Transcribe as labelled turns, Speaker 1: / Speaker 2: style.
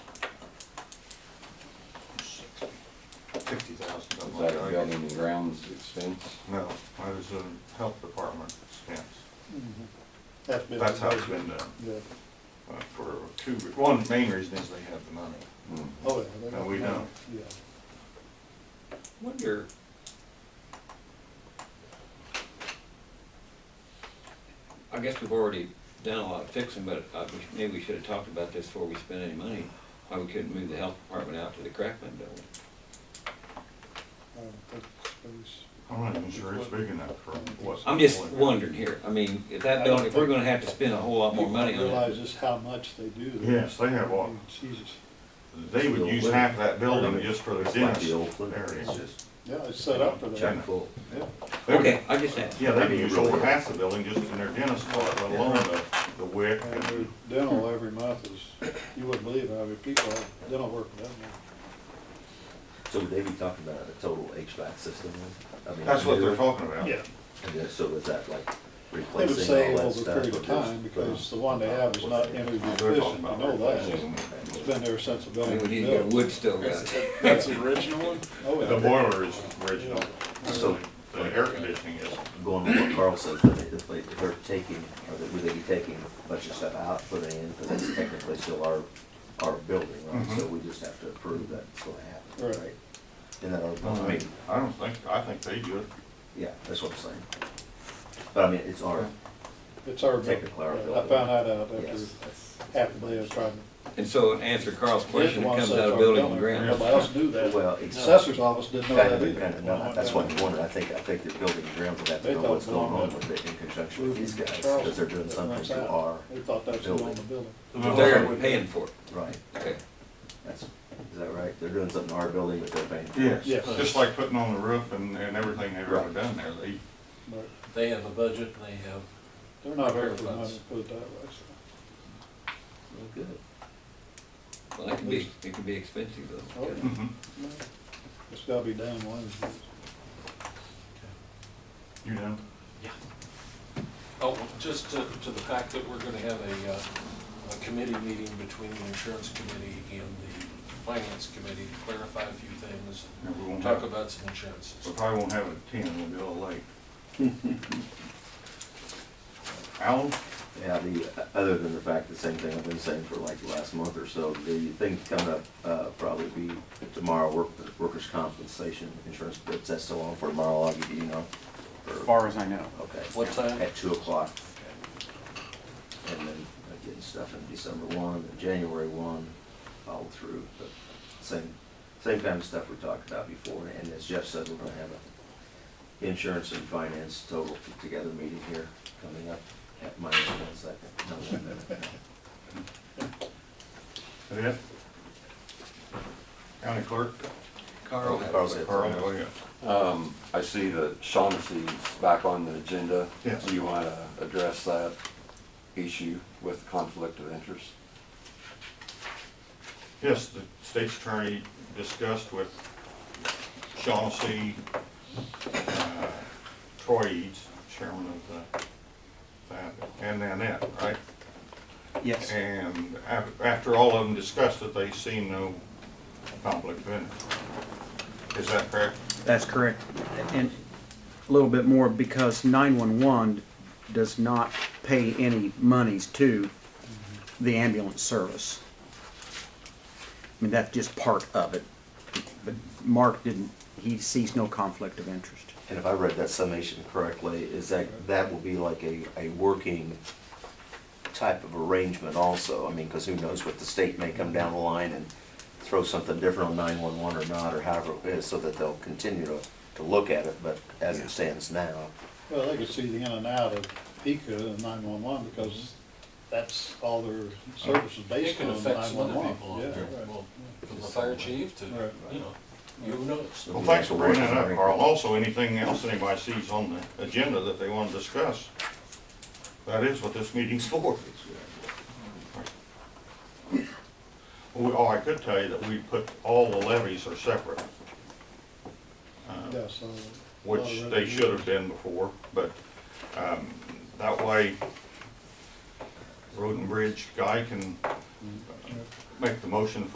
Speaker 1: that a building and grounds expense?
Speaker 2: No, that is a health department expense.
Speaker 3: Mm-hmm. That's been.
Speaker 2: That's how it's been done,
Speaker 3: Yeah.
Speaker 2: uh, for two, re- one main reason is they have the money.
Speaker 1: Hmm.
Speaker 3: Oh, yeah. they
Speaker 2: No,
Speaker 3: got
Speaker 2: we
Speaker 3: the money.
Speaker 2: don't.
Speaker 3: Yeah.
Speaker 4: Wonder. I guess we've already done a lot of fixing, but uh, we- maybe we should have talked about this before we spent any money. Why we couldn't move the health department out to the Crackman building?
Speaker 3: I don't think it's-
Speaker 2: I'm not even sure it's big enough for what's.
Speaker 4: I'm just wondering here, I mean, if that building, if we're gonna have to spend a whole lot more money
Speaker 3: People
Speaker 4: on
Speaker 3: Realize
Speaker 4: it.
Speaker 3: just how much they do. there.
Speaker 2: Yes, they have
Speaker 3: I
Speaker 2: all,
Speaker 3: mean, Jesus,
Speaker 2: they would use half that building just for the
Speaker 1: It's like
Speaker 2: dentist
Speaker 1: the old clinic, it's
Speaker 2: area.
Speaker 1: just
Speaker 3: yeah, it's set up for that.
Speaker 1: chock full.
Speaker 3: Yeah.
Speaker 2: They would-
Speaker 4: Okay, I just asked.
Speaker 2: Yeah, they would use over half the building just in their dentist part, let alone the, the wick
Speaker 3: And their
Speaker 2: and
Speaker 3: dental every month is, you wouldn't believe how many people have dental work down there.
Speaker 5: So would they be talking about a total HVAC system then? I mean,
Speaker 2: That's what they're
Speaker 5: new-
Speaker 2: talking about.
Speaker 5: And then, so is that like
Speaker 3: They would
Speaker 5: replacing
Speaker 3: save
Speaker 5: all that
Speaker 3: over a
Speaker 5: stuff?
Speaker 3: period
Speaker 5: or
Speaker 3: of
Speaker 5: just-
Speaker 3: time because the one they have is not
Speaker 2: They're
Speaker 3: energy
Speaker 2: talking
Speaker 3: efficient, you
Speaker 2: about
Speaker 3: know that.
Speaker 2: replacing
Speaker 3: It's been there since the
Speaker 4: I
Speaker 3: building
Speaker 4: mean,
Speaker 3: was
Speaker 4: we need to get a
Speaker 3: built.
Speaker 4: wood stove out there.
Speaker 6: That's the original one?
Speaker 3: Oh,
Speaker 2: The
Speaker 3: yeah.
Speaker 2: boiler is original,
Speaker 5: So-
Speaker 2: the air conditioning is.
Speaker 5: Going with what Carl says, that if they, if they're taking, or that would they be taking a bunch of stuff out, putting in, because that's technically still our, our building,
Speaker 2: Mm-hmm.
Speaker 5: right? So we just have to approve that it's gonna
Speaker 3: Right.
Speaker 5: happen, right? And that, I
Speaker 2: I
Speaker 5: mean,
Speaker 2: I don't think, I think they do it.
Speaker 5: yeah, that's what I'm saying. But I mean, it's our,
Speaker 3: It's our building.
Speaker 5: Technically our
Speaker 3: I
Speaker 5: building.
Speaker 3: found that out after
Speaker 5: yes, that's-
Speaker 3: half a day of trying. to-
Speaker 4: And so in answer to Carl's
Speaker 3: They're the
Speaker 4: question, it
Speaker 3: ones
Speaker 4: comes
Speaker 3: that
Speaker 4: out of
Speaker 3: are
Speaker 4: building
Speaker 3: building.
Speaker 4: and grounds.
Speaker 3: Nobody else knew that.
Speaker 5: well,
Speaker 3: The
Speaker 5: it's.
Speaker 3: Assessor's office didn't know
Speaker 5: Kind
Speaker 3: that
Speaker 5: of,
Speaker 3: either.
Speaker 5: kind of, no, that's what I'm wondering, I think, I think the building and grounds would have to know what's going on with it in conjunction with these guys, because they're doing something to our,
Speaker 3: They thought that's who owned the building.
Speaker 4: They're paying for it,
Speaker 5: right,
Speaker 4: okay.
Speaker 5: that's, is that right? They're doing something to our building, but they're paying. for it.
Speaker 2: Yes,
Speaker 3: Yes.
Speaker 2: just like putting on the roof and, and everything they've ever done there, they,
Speaker 3: But
Speaker 6: They have a budget, and they have,
Speaker 3: They're not very good money, put it that way. so.
Speaker 5: Well, Good.
Speaker 4: Well, that could be, it could be expensive
Speaker 3: Oh,
Speaker 4: though.
Speaker 3: yeah.
Speaker 2: mhm.
Speaker 3: It's gotta be down one.
Speaker 2: you know,
Speaker 6: oh, just to, to the fact that we're gonna have a, uh, a committee meeting between the insurance committee and the finance committee to clarify a few things,
Speaker 2: and we
Speaker 6: and
Speaker 2: won't
Speaker 6: talk
Speaker 2: have,
Speaker 6: about some insurances.
Speaker 2: we probably won't have a ten, we'll be a little late. Alan,
Speaker 5: Yeah, the, uh, other than the fact, the same thing I've been saying for like the last month or so, the thing coming up, uh, probably be tomorrow, work, workers' compensation insurance, but that's still on for tomorrow, I'll give you, you know? or-
Speaker 7: far as I know.
Speaker 5: Okay.
Speaker 6: What time?
Speaker 5: At two o'clock. And then uh, getting stuff in December one, and January one, all through, but same, same kind of stuff we talked about before. And as Jeff said, we're gonna have a insurance and finance total together meeting here coming up at minus one second. No, one minute.
Speaker 2: is that it? County clerk?
Speaker 4: Carl has.
Speaker 5: Carl's it.
Speaker 2: Carl, oh, yeah.
Speaker 1: Um, I see that Shaughnessy's back on the agenda.
Speaker 2: Yes.
Speaker 1: Do you want to address that issue with conflict of interest?
Speaker 2: Yes, the state's attorney discussed with Shaughnessy, uh, Troy Eads, chairman of the, that, and Nanette, right?
Speaker 7: Yes.
Speaker 2: And af- after all of them discussed it, they see no conflict of interest. Is that correct?
Speaker 7: That's correct. And a little bit more because 911 does not pay any monies to the ambulance service. I mean, that's just part of it. But Mark didn't, he sees no conflict of interest.
Speaker 5: And if I read that summation correctly, is that, that will be like a, a working type of arrangement also? I mean, because who knows what the state may come down the line and throw something different on nine-one-one or not, or however it is, so that they'll continue to, to look at it, but as it stands now.
Speaker 3: Well, they could see the in and out of PICA and nine-one-one because that's all their services
Speaker 6: It
Speaker 3: based on
Speaker 6: can affect some other
Speaker 3: nine-one-one.
Speaker 6: people,
Speaker 3: Yeah,
Speaker 6: out there.
Speaker 3: right.
Speaker 6: Well, from the fire chief to,
Speaker 3: Right.
Speaker 6: you know, you know. it's-
Speaker 2: Well, thanks for bringing that up, Carl. Also, anything else anybody sees on the agenda that they want to discuss, that is what this meeting's for. Well, Oh, I could tell you that we put, all the levies are separate,
Speaker 3: Yeah, so.
Speaker 2: which they should have been before, but um, that way, Road and Bridge guy can make the motion